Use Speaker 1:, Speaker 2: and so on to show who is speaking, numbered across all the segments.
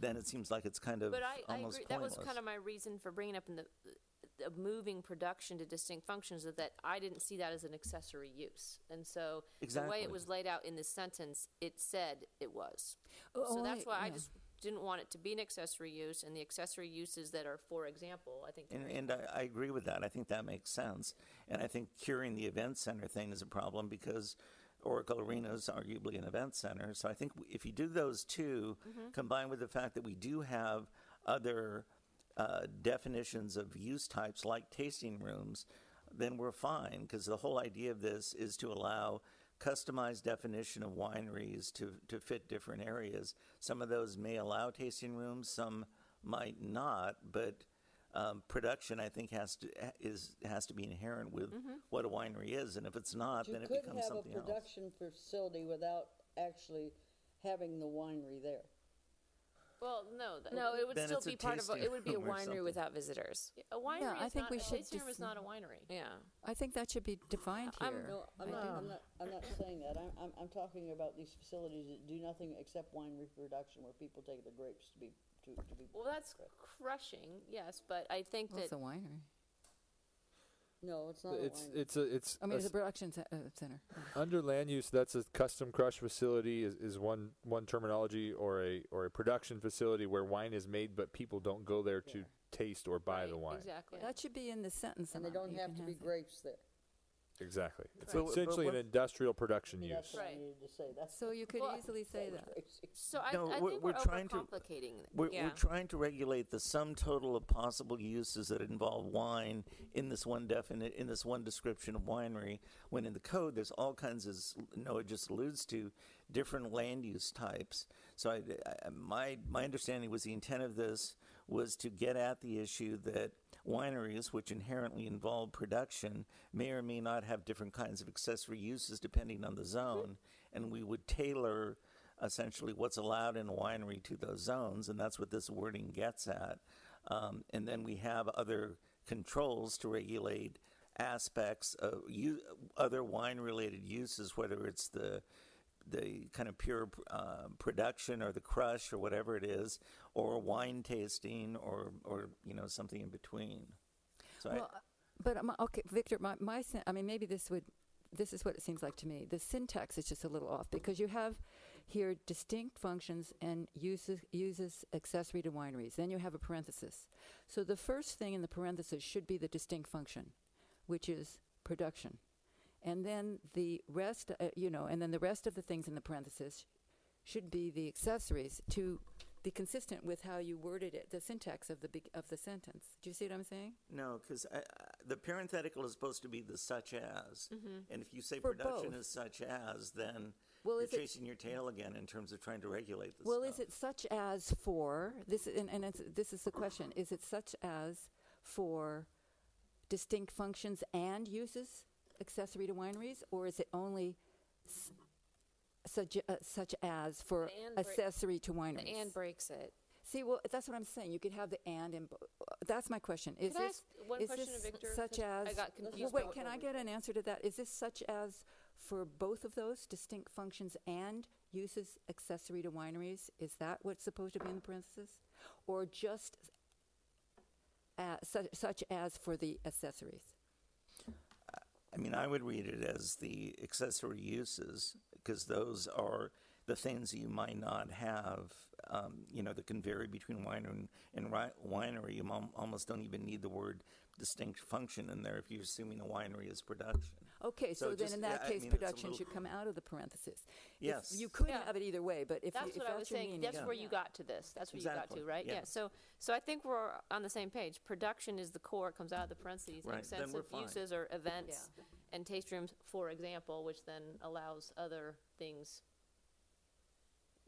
Speaker 1: then it seems like it's kind of
Speaker 2: But I, I
Speaker 1: almost
Speaker 2: agree, that was
Speaker 1: pointless.
Speaker 2: kind of my reason for bringing up in the, the moving production to distinct functions, is that I didn't see that as an accessory use. And so, the way
Speaker 1: Exactly.
Speaker 2: it was laid out in this sentence, it said it was.
Speaker 3: Oh,
Speaker 2: So
Speaker 3: oh,
Speaker 2: that's
Speaker 3: I-
Speaker 2: why I
Speaker 3: yeah.
Speaker 2: just didn't want it to be an accessory use, and the accessory uses that are, for example, I think.
Speaker 1: And, and I, I agree with that. I think that makes sense. And I think curing the event center thing is a problem because Oracle Arena is arguably an event center. So I think w- if you do those 2 combined with the fact that we do have other uh, definitions of use types like tasting rooms, then we're fine because the whole idea of this is to allow customized definition of wineries to, to fit different areas. Some of those may allow tasting rooms, some might not, but um, production, I think, has to is has to be inherent with what a winery is, and if it's not,
Speaker 4: Mm-hmm. You
Speaker 1: then it
Speaker 4: could
Speaker 1: becomes
Speaker 4: have a
Speaker 1: something else.
Speaker 4: production facility without actually having the winery there.
Speaker 2: Well, no, th- no, it would
Speaker 1: Then
Speaker 2: still
Speaker 1: it's a
Speaker 2: be part of a,
Speaker 1: tasting
Speaker 2: it would be a
Speaker 1: room or
Speaker 2: winery
Speaker 1: something.
Speaker 2: without visitors.
Speaker 5: A winery
Speaker 3: I
Speaker 5: is
Speaker 3: think
Speaker 5: not,
Speaker 3: we
Speaker 5: a
Speaker 3: should
Speaker 5: tasting room
Speaker 3: def-
Speaker 5: is not a winery.
Speaker 2: Yeah,
Speaker 3: I think that should be defined
Speaker 2: I'm-
Speaker 3: here.
Speaker 4: No, I'm
Speaker 3: I
Speaker 4: not,
Speaker 3: do.
Speaker 4: I'm not, I'm not saying that. I'm, I'm, I'm talking about these facilities that do nothing except wine reproduction where people take the grapes to be, to, to be.
Speaker 2: well, that's crushing, yes, but I think
Speaker 3: Well,
Speaker 2: that
Speaker 3: it's a winery.
Speaker 4: No, it's not a
Speaker 6: It's
Speaker 4: winery.
Speaker 6: it's a it's
Speaker 3: I mean,
Speaker 6: a
Speaker 3: it's a
Speaker 6: s-
Speaker 3: production ce- uh, center.
Speaker 6: under land use. That's a custom crush facility is, is one one terminology or a or a production facility where wine is made, but people don't go there to taste or buy the
Speaker 2: right,
Speaker 6: wine.
Speaker 2: exactly.
Speaker 3: That should be in the sentence.
Speaker 4: And they
Speaker 3: amount.
Speaker 4: don't
Speaker 3: You
Speaker 4: have
Speaker 3: can
Speaker 4: to be
Speaker 3: that.
Speaker 4: grapes there.
Speaker 6: Exactly. It's
Speaker 1: But- but
Speaker 6: essentially an
Speaker 1: what-
Speaker 6: industrial production use.
Speaker 4: That's what I
Speaker 2: Right.
Speaker 4: needed to say. That's.
Speaker 3: So you could
Speaker 2: Well,
Speaker 3: easily say that.
Speaker 2: So I,
Speaker 1: No,
Speaker 2: I
Speaker 1: we're-
Speaker 2: think
Speaker 1: we're
Speaker 2: we're,
Speaker 1: trying to-
Speaker 2: overcomplicating. it.
Speaker 1: We're,
Speaker 2: yeah.
Speaker 1: we're trying to regulate the sum total of possible uses that involve wine in this one definite in this one description of winery. When in the code, there's all kinds of s- Noah just alludes to different land use types. So I, I, my my understanding was the intent of this was to get at the issue that wineries, which inherently involve production, may or may not have different kinds of accessory uses depending on the zone, and we would tailor essentially what's allowed in a winery to those zones, and that's what this wording gets at. Um, and then we have other controls to regulate aspects of u- other wine-related uses, whether it's the the kind of pure uh, production or the crush or whatever it is, or wine tasting or or you know something in between. So
Speaker 3: Well, uh, but my, okay, Victor, my, my sen- I mean, maybe this would this is what it seems like to me. The syntax is just a little off because you have here distinct functions and uses uses accessory to wineries. Then you have a parenthesis. So the first thing in the parenthesis should be the distinct function, which is production, and then the rest, uh, you know, and then the rest of the things in the parenthesis should be the accessories to be consistent with how you worded it, the syntax of the beg of the sentence. Do you see what I'm saying?
Speaker 1: I, no, because the parenthetical is supposed to be the such as, and if you say
Speaker 3: Mm-hmm. For
Speaker 1: production
Speaker 3: both.
Speaker 1: is such as, then
Speaker 3: Well,
Speaker 1: you're
Speaker 3: is it-
Speaker 1: chasing your tail again in terms of trying to regulate this.
Speaker 3: Well,
Speaker 1: stuff.
Speaker 3: is it such as for this? And, and it's, this is the question: Is it such as for distinct functions and uses accessory to wineries, or is it only s- such, uh, such as for
Speaker 2: The and break-
Speaker 3: accessory to
Speaker 2: The
Speaker 3: wineries?
Speaker 2: and breaks it.
Speaker 3: See, well, that's what I'm saying. You could have the and in. bo- uh, That's my question. Is
Speaker 2: Can I
Speaker 3: this
Speaker 2: ask one
Speaker 3: is
Speaker 2: question to
Speaker 3: this
Speaker 2: Victor?
Speaker 3: Such
Speaker 2: 'Cause I
Speaker 3: as
Speaker 2: got
Speaker 3: Well,
Speaker 2: confused by
Speaker 3: Wait,
Speaker 2: what
Speaker 3: can
Speaker 2: one
Speaker 3: I
Speaker 2: was.
Speaker 3: get an answer to that? Is this such as for both of those distinct functions and uses accessory to wineries? Is that what's supposed to be in the parentheses, or just uh, such, such as for the accessories?
Speaker 1: I mean, I would read it as the accessory uses because those are the things you might not have. Um, you know, that can vary between wine and, and ri- winery. You mom, almost don't even need the word distinct function in there if you're assuming a winery is production.
Speaker 3: Okay,
Speaker 1: So
Speaker 3: so, then
Speaker 1: just-
Speaker 3: in that
Speaker 1: I
Speaker 3: case,
Speaker 1: mean, it's a
Speaker 3: production
Speaker 1: little-
Speaker 3: should come out of the parentheses. If
Speaker 1: Yes.
Speaker 3: you could
Speaker 2: Yeah.
Speaker 3: have it either way, but if you-
Speaker 2: That's
Speaker 3: if
Speaker 2: what I was
Speaker 3: your
Speaker 2: saying.
Speaker 3: meaning,
Speaker 2: That's
Speaker 3: yeah.
Speaker 2: where you got to this. That's where you
Speaker 1: Exactly,
Speaker 2: got to, right?
Speaker 1: yeah.
Speaker 2: So, so I think we're on the same page. Production is the core. It comes out of the parentheses.
Speaker 1: Right,
Speaker 2: Makes
Speaker 1: then
Speaker 2: sense
Speaker 1: we're
Speaker 2: of
Speaker 1: fine.
Speaker 2: uses or events and taste rooms, for example, which then allows other things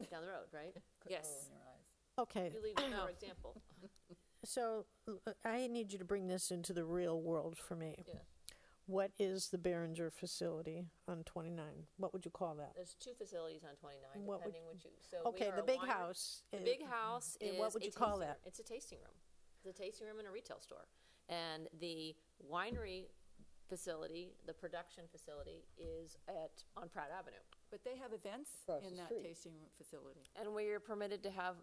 Speaker 2: down the road, right?
Speaker 3: yes.
Speaker 7: Okay,
Speaker 2: You leave it for example.
Speaker 7: so uh, I need you to bring this into the real world for me.
Speaker 2: Yeah.
Speaker 7: What is the Behringer facility on 29? What would you call that?
Speaker 2: There's two facilities on 29,
Speaker 7: What would-
Speaker 2: depending what you. So Uh, we
Speaker 7: Okay,
Speaker 2: are
Speaker 7: the
Speaker 2: a
Speaker 7: big
Speaker 2: winery-
Speaker 7: house.
Speaker 2: The
Speaker 7: is-
Speaker 2: big house
Speaker 7: and
Speaker 2: is.
Speaker 7: what would
Speaker 2: a
Speaker 7: you call
Speaker 2: tasting-
Speaker 7: that?
Speaker 2: It's a tasting room. It's a tasting room and a retail store. And the winery facility, the production facility, is at on Pratt Avenue.
Speaker 3: But they have events
Speaker 4: Across
Speaker 3: in
Speaker 4: the
Speaker 3: that
Speaker 4: street.
Speaker 3: tasting room facility.
Speaker 2: And we are permitted to have